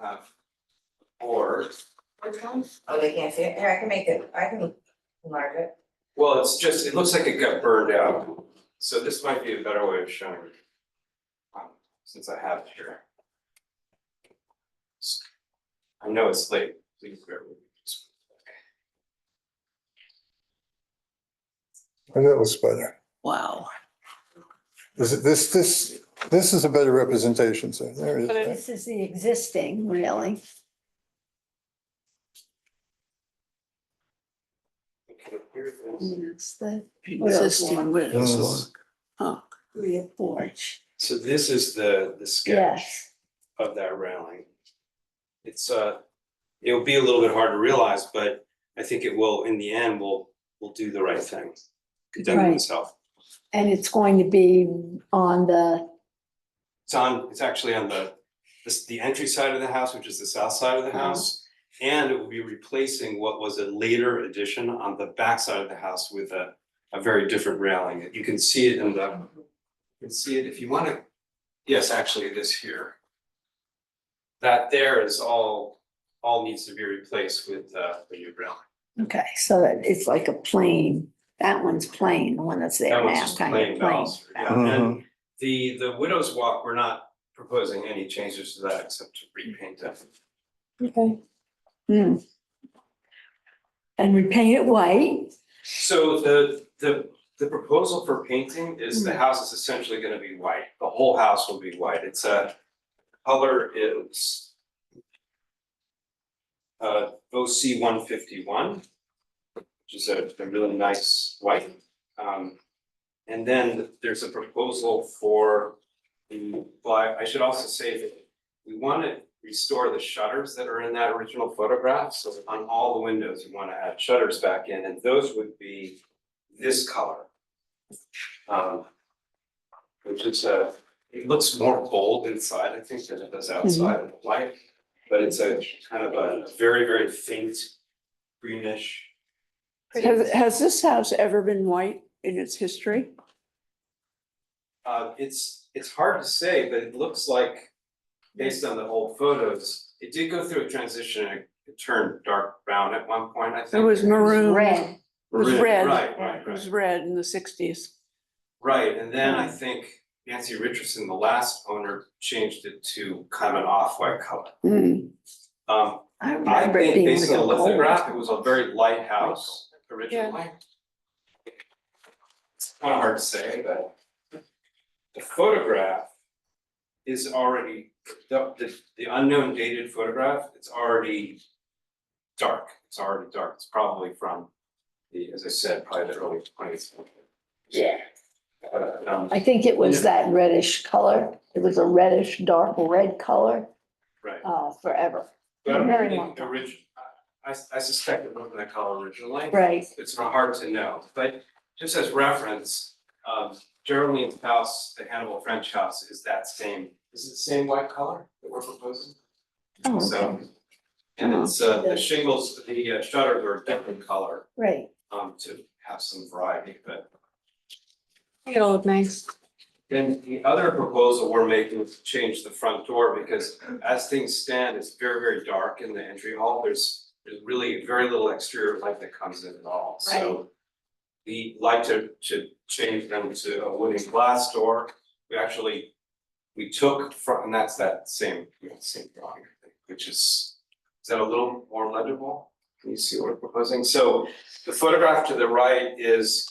have four. Which ones? Oh, they can't see it, here, I can make it, I can enlarge it. Well, it's just, it looks like it got burned out, so this might be a better way of showing. it, um, Since I have it here. I know it's late, please bear with me. And that was better. Wow. This, this, this, this is a better representation, so there it is. This is the existing really. Okay, here's this. It's the Existing Yes. with. rear porch. Uh, So this is the, the sketch Yes, of that railing. It's, uh, it'll be a little bit hard to realize, but I think it will, in the end, will, will do the right thing. Condemn Right. itself. and it's going to be on the, It's on, it's actually on the, this, the entry side of the house, which is the south side of the house. And it will be replacing what was a later addition on the back side of the house with a, a very different railing. You can see it in the, you can see it if you wanna, yes, actually it is here. That there is all, all needs to be replaced with, uh, the new railing. okay, so that it's like a plane. That one's plain, the one that's there That was now, just kind of plain plain. baluster, yeah. And the, the widow's walk, we're not proposing any changes to that except to repaint it. Okay. Hmm. And repaint it white, So the, the, the proposal for painting is the house is essentially gonna be white, the whole house will be white, it's a color is uh, OC one fifty-one, which is a, a really nice white. Um, and then there's a proposal for the, well, I- I should also say that we wanna restore the shutters that are in that original photograph, so on all the windows, you wanna add shutters back in, and those would be this color. Um, which is a, it looks more bold inside, I think, than it does outside in the light, but it's a kind of a very, very faint greenish. Has, has this house ever been white in its history? Uh, it's, it's hard to say, but it looks like, based on the old photos, it did go through a transition, and it turned dark brown at one point, I think. It was maroon. red, It was Maroon, red. Right, right, It was right, red in the sixties. right, and then I think Nancy Richardson, the last owner, changed it to kind of an off-white color. Um, Hmm. I I remember it think being based like on a the gold. lithograph, it was a very light house originally. It's kind of hard to say, but the photograph is already, the, the, the unknown dated photograph, it's already dark, it's already dark, it's probably from the, as I said, probably the early twentieth century. Yeah. But, um, I think it was that reddish color. It was a reddish, dark red color, right, uh, forever. but I Very don't long think time. origin, I, I suspect it wasn't that color originally. Right. it's not hard to know, but just as reference, um, Geraldine's house, the Hannibal French house, is that same, is it the same white color that we're proposing? Oh, So, okay. and it's, uh, the shingles, the uh, shutters were a different color, Right. um, to have some variety, but. It looked nice. Then the other proposal we're making is to change the front door, because as things stand, it's very, very dark in the entry hall, there's, there's really very little exterior light that comes in at all, so. We like to, to change them to a wooden glass door, we actually, we took from, and that's that same, you know, same drawing, I think, which is, is that a little more legible? Can you see what we're proposing? So the photograph to the right is,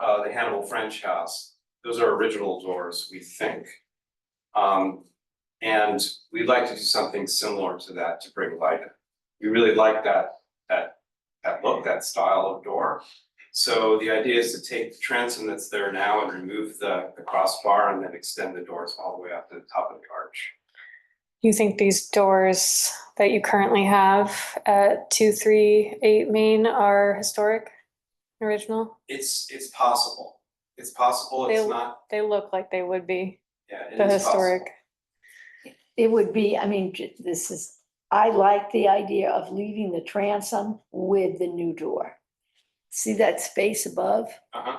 uh, the Hannibal French house, those are original doors, we think. Um, and we'd like to do something similar to that to bring light in. We really like that, that, that look, that style of door. So the idea is to take the transom that's there now and remove the, the crossbar and then extend the doors all the way up to the top of the arch. you think these doors that you currently have at two, three, eight Main are historic, original? It's, it's possible. It's possible, it's They- not, They look like they would be yeah, it is the possible. historic. It would be, I mean, j- this is, I like the idea of leaving the transom with the new door. See that space above? Uh-huh,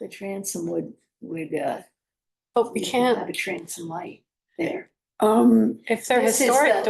The transom would, would, uh. But we you could can't, Have a transom light there. Um, If they're This is historic the-